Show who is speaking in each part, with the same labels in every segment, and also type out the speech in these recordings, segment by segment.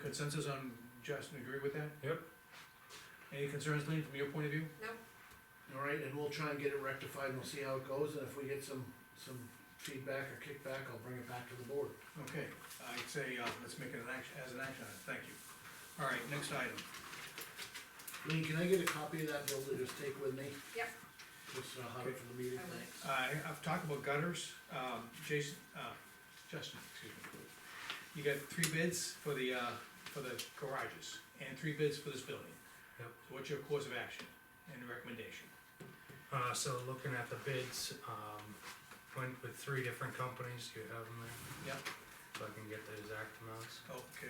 Speaker 1: consensus on Justin, agree with that?
Speaker 2: Yep.
Speaker 1: Any concerns, Lean, from your point of view?
Speaker 3: All right, and we'll try and get it rectified, and we'll see how it goes, and if we get some, some feedback or kickback, I'll bring it back to the board.
Speaker 1: Okay, I'd say, uh, let's make it an action, as an action item, thank you. All right, next item.
Speaker 3: Lean, can I get a copy of that bill to just take with me?
Speaker 4: Yep.
Speaker 3: Just uh, have it for the meeting,
Speaker 4: I will.
Speaker 3: thanks.
Speaker 1: Uh, I've talked about gutters, um, Jason, uh, Justin, excuse me. You got three bids for the, uh, for the garages, and three bids for this building.
Speaker 2: Yep.
Speaker 1: So What's your course of action and recommendation?
Speaker 2: Uh, so looking at the bids, um, went with three different companies, Do you have them there?
Speaker 1: Yep.
Speaker 2: So I can get the exact amounts.
Speaker 1: Okay,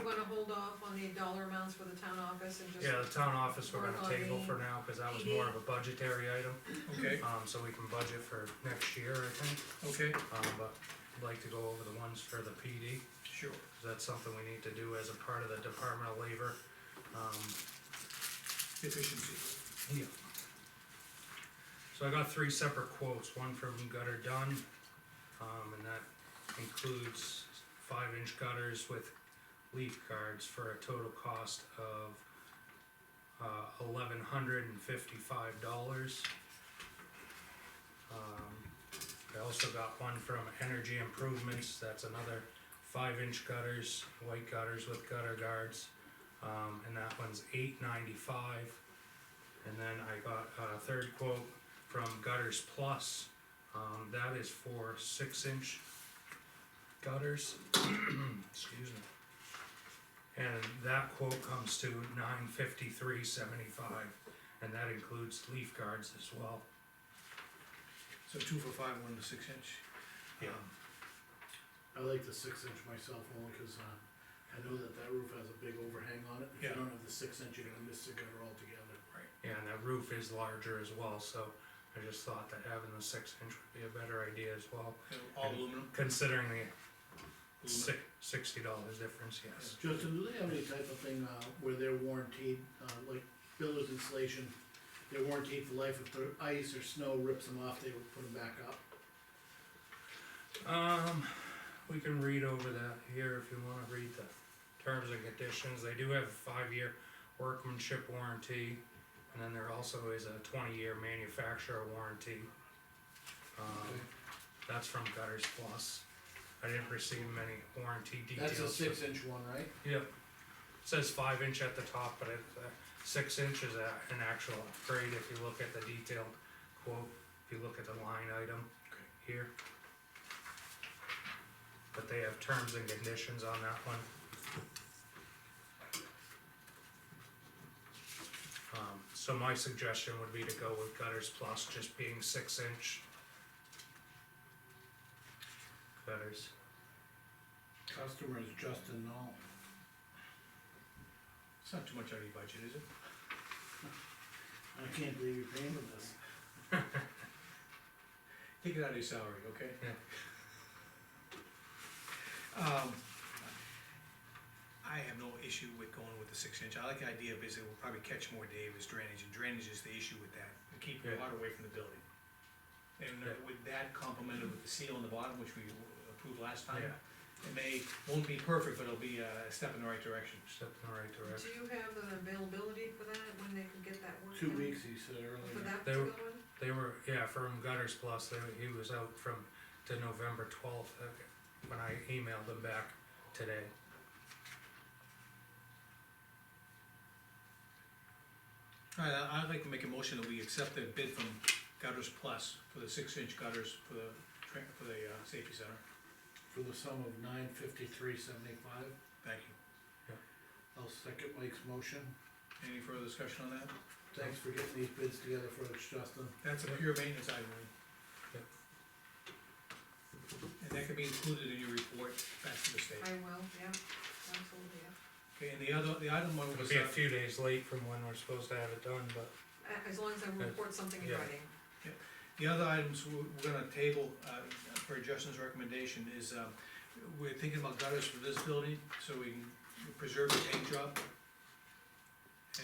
Speaker 1: uh,
Speaker 4: wanna hold off on the dollar amounts for the town office and just,
Speaker 2: Yeah, the town office we're
Speaker 4: Work on E.
Speaker 2: gonna table
Speaker 4: the
Speaker 2: for now, cause that was more of a budgetary item,
Speaker 1: okay,
Speaker 2: um, so we can budget for next year, I think.
Speaker 1: okay,
Speaker 2: Um, but I'd like to go over the ones for the PD,
Speaker 1: sure,
Speaker 2: cause that's something we need to do as a part of the Department of Labor. Um,
Speaker 1: efficiency.
Speaker 2: yeah. So I got three separate quotes, one from Gutter Dunn, um, and that includes five inch gutters with leaf guards for a total cost of uh, eleven hundred and fifty-five dollars. Um, I also got one from Energy Improvements, that's another five inch gutters, white gutters with gutter guards. Um, and that one's eight ninety-five. And then I got a third quote from Gutters Plus, um, that is for six inch gutters, excuse me. And that quote comes to nine fifty-three seventy-five, and that includes leaf guards as well.
Speaker 1: So two for five, one to six inch.
Speaker 2: Yeah.
Speaker 1: Um,
Speaker 3: I like the six inch myself only, cause, uh, I know that that roof has a big overhang on it. If
Speaker 1: Yeah.
Speaker 3: you don't have the six inch, you're gonna miss the gutter altogether.
Speaker 2: Yeah, and that roof is larger as well, so I just thought that having the six inch would be a better idea as well,
Speaker 1: All aluminum,
Speaker 2: considering the
Speaker 1: aluminum.
Speaker 2: six, sixty dollars difference, yes.
Speaker 3: Justin, do they have any type of thing, uh, where they're warranted, uh, like builder's insulation, they're warranted for life, if the ice or snow rips them off, they will put them back up?
Speaker 2: Um, we can read over that here if you wanna read the terms and conditions, they do have a five-year workmanship warranty. And then there also is a twenty-year manufacturer warranty. Um, that's from Gutters Plus, I didn't receive many warranty details.
Speaker 3: That's a six inch one, right?
Speaker 2: Yep, says five inch at the top, but it's, uh, six inch is a, an actual upgrade if you look at the detailed quote, if you look at the line item
Speaker 1: Okay.
Speaker 2: here. But they have terms and conditions on that one. Um, so my suggestion would be to go with gutters plus just being six inch. Gutters.
Speaker 3: Customer is Justin Knoll.
Speaker 1: It's not too much out of your budget, is it?
Speaker 3: I can't believe you're paying for this.
Speaker 1: Take it out of your salary, okay?
Speaker 2: Yeah.
Speaker 1: Um, I have no issue with going with the six inch, I like the idea of basically we'll probably catch more Davis drainage, and drainage is the issue with that, to keep
Speaker 2: Yeah.
Speaker 1: water away from the building. And uh,
Speaker 2: Yeah.
Speaker 1: with that complemented with the seal on the bottom, which we approved last time,
Speaker 2: Yeah.
Speaker 1: it may, won't be perfect, but it'll be a step in the right direction.
Speaker 2: Step in the right
Speaker 4: do
Speaker 2: direction.
Speaker 4: you have an availability for that, when they could get that work?
Speaker 3: Two
Speaker 4: done?
Speaker 3: weeks, he said
Speaker 4: For
Speaker 3: earlier.
Speaker 4: that
Speaker 2: They were-
Speaker 4: particular one?
Speaker 2: They were, yeah, from Gutters Plus, they, were- he was out from, to November twelfth, uh, when I emailed him back today.
Speaker 1: All right, I- I'd like to make a motion that we accept the bid from Gutters Plus for the six inch gutters for the, tra- for the, uh, safety center,
Speaker 3: For the sum of nine fifty-three seventy-five,
Speaker 1: thank you.
Speaker 3: I'll second Mike's motion.
Speaker 1: Any further discussion on that?
Speaker 3: Thanks for getting these bids together for us, Justin.
Speaker 1: That's a
Speaker 2: Yep.
Speaker 1: pure maintenance item, Lee.
Speaker 2: Yep.
Speaker 1: And that can be included in your report back to the state.
Speaker 4: I will, yeah, absolutely, yeah.
Speaker 1: Okay, and the other, the item one
Speaker 2: It'll
Speaker 1: was,
Speaker 2: be a
Speaker 1: uh,
Speaker 2: few days late from when we're supposed to have it done, but
Speaker 4: A- As long as I report something in
Speaker 2: Yeah.
Speaker 4: writing.
Speaker 1: the other items we're, we're gonna table, uh, for Justin's recommendation is, um, we're thinking about gutters for this building, so we can preserve the paint job.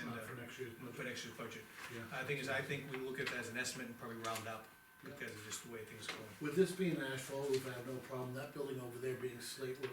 Speaker 1: And,
Speaker 3: Not
Speaker 1: uh,
Speaker 3: for next year's
Speaker 1: for
Speaker 3: budget,
Speaker 1: next year's budget.
Speaker 3: yeah.
Speaker 1: I think is, I think we look at that as an estimate and probably round up, because of just the way things are going.
Speaker 3: With this being asphalt, we've had no problem, that building over there being slate, we're